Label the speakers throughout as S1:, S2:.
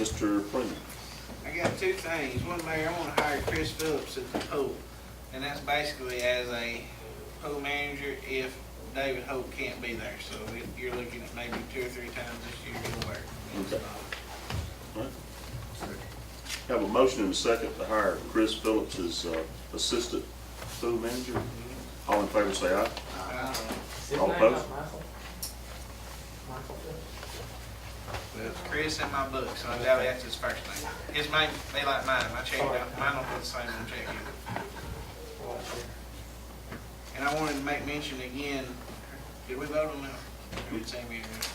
S1: Mr. Freeman.
S2: I got two things. One, Mayor, I want to hire Chris Phillips at the pool, and that's basically as a pool manager if David Hope can't be there. So if you're looking at maybe two or three times this year he'll work.
S1: Okay. All right. Have a motion and a second to hire Chris Phillips as uh, Assistant Pool Manager. All in favor, say aye.
S2: Uh,
S3: His
S1: All
S3: name not
S1: opposed?
S3: Michael? Michael Phillips?
S2: Well, Chris in my book, so I doubt that's his first name. His name, they like mine. I checked out. Mine don't put the same on check either.
S3: Well, that's it.
S2: And I wanted to make mention again, did we vote on that? Or did Sammy do it?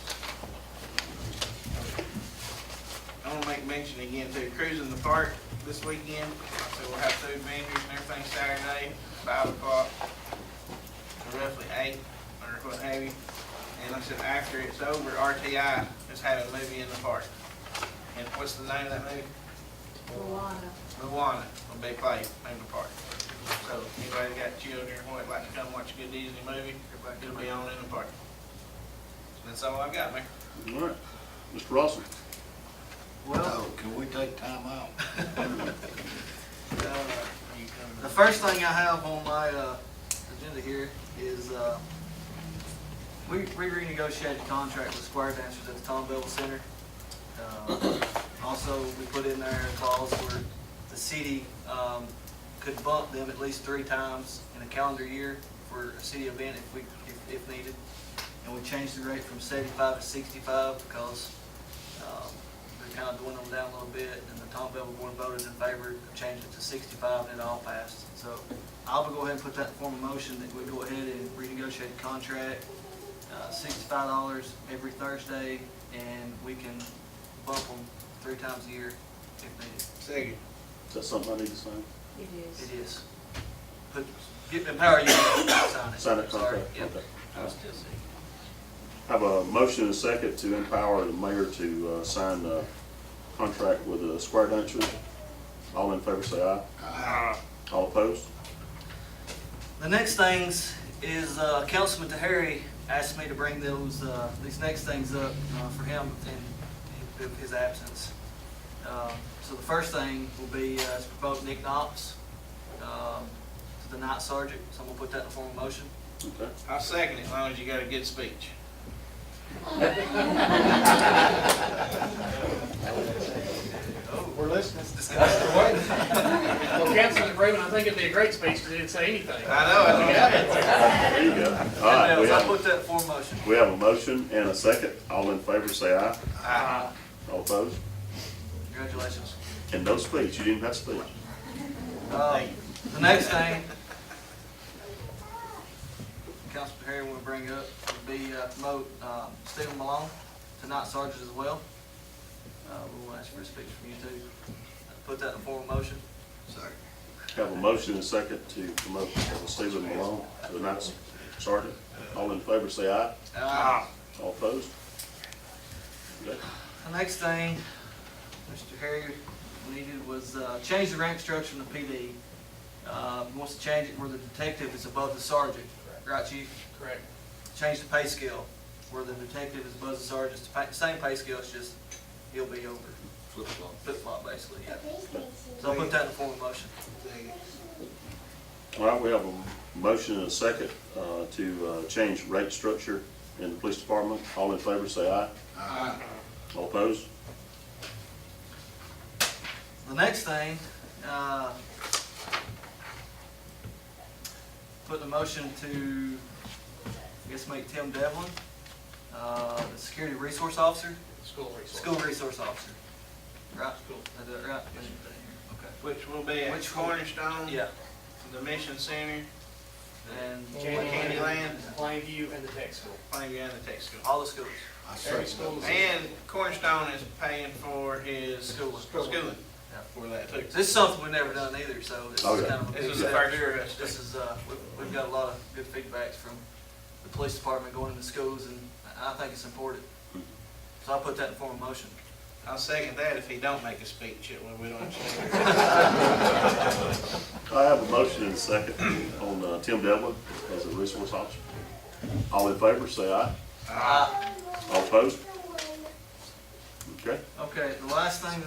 S2: I want to make mention again to cruising the park this weekend. So we'll have food vendors and everything Saturday, five o'clock, or roughly eight, or what have you. And I said, after it's over, RTI is having a movie in the park. And what's the name of that movie?
S4: Moana.
S2: Moana will be played in the park. So anybody that got children who would like to come watch a good Disney movie, it'll be on in the park. That's all I've got, Mayor.
S1: All right. Mr. Rossman.
S5: Well, Oh, can we take time out? The
S2: Uh,
S5: first thing I have on my uh, agenda here is, uh, we we renegotiated the contract with Square Dancers at the Tom Bevel Center. Uh, Also, we put in there a clause where the city um, could bump them at least three times in a calendar year for a city event if we, if- if needed. And we changed the rate from 75 to 65 because um, we kind of dwindled them down a little bit, and the Tom Bevel Board voted in favor of changing it to 65, and it all passed. So I'll go ahead and put that in form of motion that we go ahead and renegotiate the contract, uh, $65 every Thursday, and we can bump them three times a year if needed.
S2: Second.
S1: Is that something I need to sign?
S4: It is.
S5: It is. Put, get, empower you to sign it.
S1: Sign that
S5: Sorry,
S1: contract?
S5: yep.
S1: Okay.
S2: I was still second.
S1: Have a motion and a second to empower the mayor to uh, sign the contract with the Square Dunchers. All in favor, say aye. All opposed?
S5: The next things is, uh, Councilman Tahari asked me to bring those, uh, these next things up, uh, for him in, in his absence. Um, so the first thing will be, uh, to promote Nick Knox, um, to the night sergeant, so I'm gonna put that in form of motion.
S1: Okay.
S2: I'll second it as long as you got a good speech.
S5: We're listening. Discussion.
S3: Well, Councilman Raymond, I think it'd be a great speech because he didn't say anything.
S2: I know, I think I
S5: Uh,
S2: did.
S1: There you go. All right, we
S5: I'll
S1: have,
S5: put that in form of motion.
S1: we have a motion and a second. All in favor, say aye.
S2: Ah,
S1: All opposed?
S5: Congratulations.
S1: And no speech, you didn't have speech.
S5: Um, The next thing, Councilman Perry will bring up would be uh, promote um, Stephen Malone to night sergeant as well. Uh, We want to ask for a speech from you too. Put that in form of motion.
S1: Have a motion and a second to promote Stephen Malone to the night sergeant. All in favor, say aye.
S5: Uh,
S2: ah.
S1: All opposed? Okay.
S5: The next thing, Mr. Harry needed was uh, change the rank structure in the PD. Uh, he Wants to change it where the detective is above the sergeant. Right, chief?
S3: Correct.
S5: change the pay scale, where the detective is above the sergeant, it's the pa- same pay scale, it's just he'll be over. Flip flop. Flip flop, basically, yeah. So I'll put that in the form of motion.
S1: All right, we have a motion and a second uh, to uh, change rate structure in the police department. All in favor, say aye.
S5: uh.
S1: All opposed?
S5: The next thing, uh, put the motion to, I guess, make Tim Devlin, uh, the security resource officer,
S3: School resource.
S5: school resource officer. Right?
S3: School.
S5: Is that right?
S2: Which will be at
S5: Which-
S2: Cornerstone,
S5: Okay. Yeah,
S2: the Mission Center,
S5: and
S2: Candy- Candy Land.
S3: Plainview and the tech school.
S2: Plainview and the Tech School.
S5: all the schools.
S3: Every school's.
S2: And Cornerstone is paying for his
S5: Schooling.
S2: schooling
S5: Yeah.
S2: for that too.
S5: This is something we've never done either, so this is
S1: Oh, yeah.
S5: kind of a big
S2: This is the
S5: step.
S2: first year of us.
S5: This is, uh, we- we've got a lot of good feedbacks from the police department going into schools, and I I think it's important. So I'll put that in form of motion.
S2: I'll second that if he don't make a speech, it will- we don't. have to-
S1: I have a motion and a second on uh, Tim Devlin as a resource officer. All in favor, say aye.
S5: Uh,
S1: All opposed? Okay?
S5: Okay, the last thing